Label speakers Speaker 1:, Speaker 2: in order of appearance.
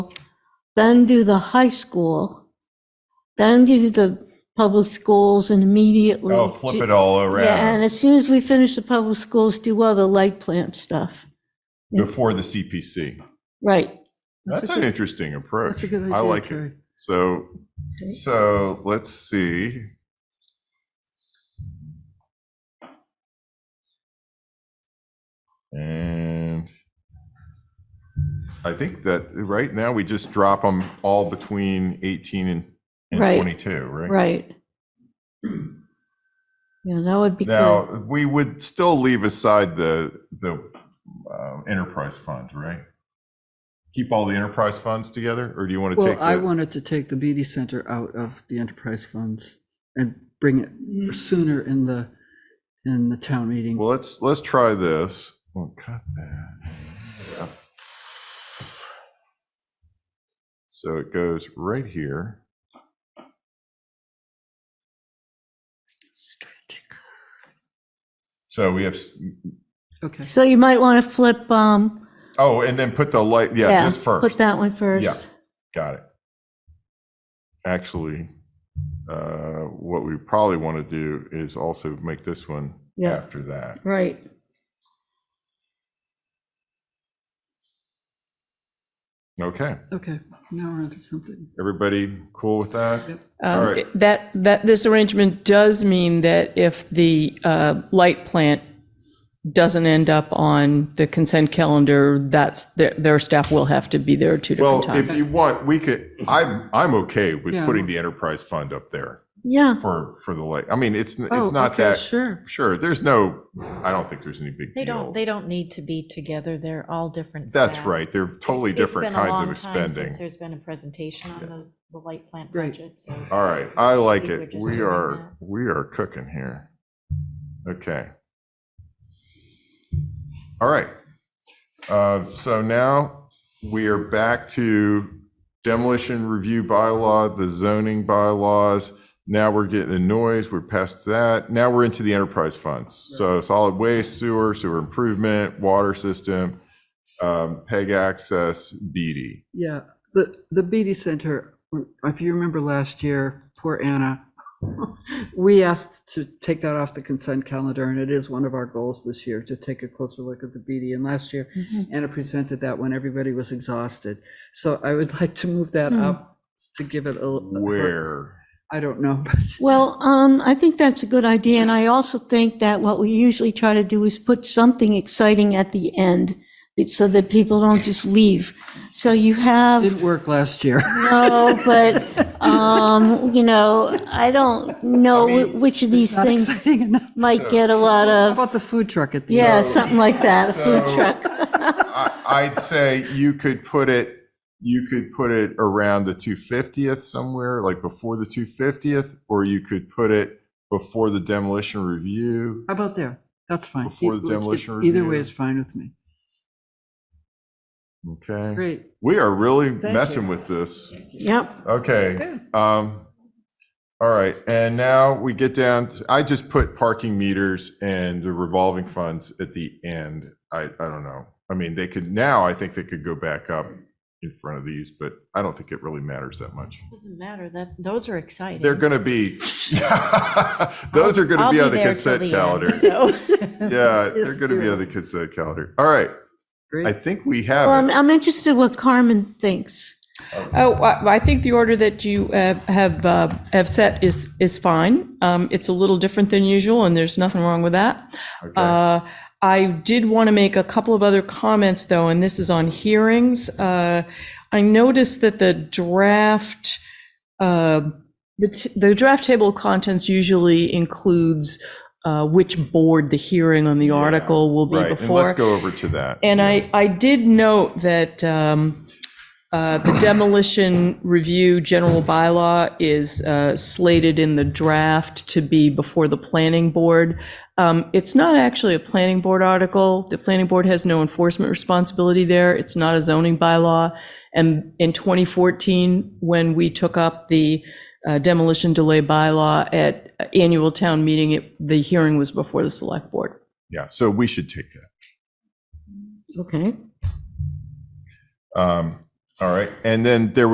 Speaker 1: then do the high school, then do the public schools and immediately.
Speaker 2: Oh, flip it all
Speaker 1: Yeah, and
Speaker 2: around
Speaker 1: as soon as we finish the public schools, do all the light plant stuff.
Speaker 2: before the CPC.
Speaker 1: Right.
Speaker 2: That's an interesting approach.
Speaker 3: That's a good idea.
Speaker 2: I like it.
Speaker 3: Terry.
Speaker 2: So, so let's see. And I think that right now we just drop them all between 18 and and
Speaker 1: Right.
Speaker 2: 22, right?
Speaker 1: Right. Yeah, that would be
Speaker 2: Now,
Speaker 1: good.
Speaker 2: we would still leave aside the, the um, enterprise fund, right? Keep all the enterprise funds together, or do you want to take?
Speaker 3: Well, I
Speaker 2: the-
Speaker 3: wanted to take the BD Center out of the enterprise funds and bring it sooner in the, in the town meeting.
Speaker 2: Well, let's, let's try this. Well, cut that. Yeah. So it goes right here. So we have, s-
Speaker 3: Okay,
Speaker 1: So you might want to flip, um,
Speaker 2: oh, and then put the light, yeah,
Speaker 1: yeah,
Speaker 2: this first.
Speaker 1: put that one first.
Speaker 2: Yeah, got it. Actually, uh, what we probably want to do is also make this one
Speaker 1: Yeah.
Speaker 2: after that.
Speaker 1: Right.
Speaker 2: Okay,
Speaker 3: okay, now we're onto something.
Speaker 2: everybody cool with that?
Speaker 3: Yep.
Speaker 2: All
Speaker 4: Um,
Speaker 2: right.
Speaker 4: That, that, this arrangement does mean that if the uh, light plant doesn't end up on the consent calendar, that's, their, their staff will have to be there two different
Speaker 2: Well, if
Speaker 4: times.
Speaker 2: you want, we could, I'm, I'm okay with
Speaker 3: Yeah.
Speaker 2: putting the enterprise fund up there
Speaker 1: Yeah,
Speaker 2: for, for the like, I mean, it's,
Speaker 3: Oh,
Speaker 2: it's not
Speaker 3: okay,
Speaker 2: that,
Speaker 3: Sure.
Speaker 2: sure, there's no, I don't think there's any big
Speaker 5: They don't,
Speaker 2: deal.
Speaker 5: they don't need to be together. They're all different.
Speaker 2: That's
Speaker 5: staff.
Speaker 2: right, they're totally
Speaker 5: It's- it's
Speaker 2: different
Speaker 5: been a
Speaker 2: kinds
Speaker 5: long
Speaker 2: of
Speaker 5: time since
Speaker 2: spending.
Speaker 5: There's been a presentation on the, the light plant
Speaker 3: Right.
Speaker 5: budget, so.
Speaker 2: All right, I like
Speaker 5: We were
Speaker 2: it.
Speaker 5: just
Speaker 2: We
Speaker 5: doing
Speaker 2: are, we are cooking here. Okay. All right. Uh, So now we are back to demolition review bylaw, the zoning bylaws. Now we're getting the noise, we're past that. Now we're into the enterprise funds. So solid waste, sewer, sewer improvement, water system, um, peg access, BD.
Speaker 3: Yeah, the, the BD Center, if you remember last year, poor Anna, we asked to take that off the consent calendar, and it is one of our goals this year, to take a closer look at the BD. And last year,
Speaker 1: Mm-hmm.
Speaker 3: Anna presented that when everybody was exhausted. So I would like to move that
Speaker 1: Hmm.
Speaker 3: up to give it a.
Speaker 2: Where?
Speaker 3: I don't know, but
Speaker 1: well, um, I think that's a good idea, and I also think that what we usually try to do is put something exciting at the end, so that people don't just leave. So you have.
Speaker 3: didn't work last year.
Speaker 1: No, but, um, you know, I don't know whi- which of these
Speaker 3: Not
Speaker 1: things
Speaker 3: exciting enough.
Speaker 1: might get a lot
Speaker 3: How
Speaker 1: of,
Speaker 3: about the food truck at the end?
Speaker 1: yeah, something like that, a food
Speaker 2: So-
Speaker 1: truck.
Speaker 2: I- I'd say you could put it, you could put it around the 250th somewhere, like before the 250th, or you could put it before the demolition review.
Speaker 3: How about there? That's fine.
Speaker 2: Before the uh,
Speaker 3: Either-
Speaker 2: demolition
Speaker 3: Either way
Speaker 2: review.
Speaker 3: is fine with me.
Speaker 2: Okay.
Speaker 3: Great.
Speaker 2: We are really
Speaker 3: you.
Speaker 2: messing with this.
Speaker 1: Yep,
Speaker 2: Okay. Um, all right. And now we get down, I just put parking meters and the revolving funds at the end. I, I don't know. I mean, they could, now I think they could go back up in front of these, but I don't think it really matters that much.
Speaker 5: Doesn't matter, that, those are exciting.
Speaker 2: They're going to be, those are going to
Speaker 5: I'll
Speaker 2: be on the
Speaker 5: there till
Speaker 2: consent
Speaker 5: the
Speaker 2: calendar.
Speaker 5: end, so.
Speaker 2: Yeah, they're going to be on the consent calendar. All right. I
Speaker 3: Great.
Speaker 2: think we
Speaker 1: well,
Speaker 2: have
Speaker 1: I'm,
Speaker 2: it.
Speaker 1: I'm interested what Carmen thinks.
Speaker 4: Oh, I I think the order that you uh, have, uh, have set is, is fine. Um, It's a little different than usual, and there's nothing wrong with that.
Speaker 2: Okay.
Speaker 4: Uh, I did want to make a couple of other comments, though, and this is on hearings. Uh, I noticed that the draft, uh, the t- the draft table of contents usually includes uh, which board the hearing on the article will be
Speaker 2: Right. And let's
Speaker 4: before.
Speaker 2: go over to that.
Speaker 4: And I, I did note that um, uh, the demolition review general bylaw is uh, slated in the draft to be before the planning board. Um, It's not actually a planning board article. The planning board has no enforcement responsibility there. It's not a zoning bylaw. And in 2014, when we took up the uh, demolition delay bylaw at annual town meeting, it- the hearing was before the select board.
Speaker 2: Yeah, so we should take that.
Speaker 1: Okay.
Speaker 2: Um, All right, and then there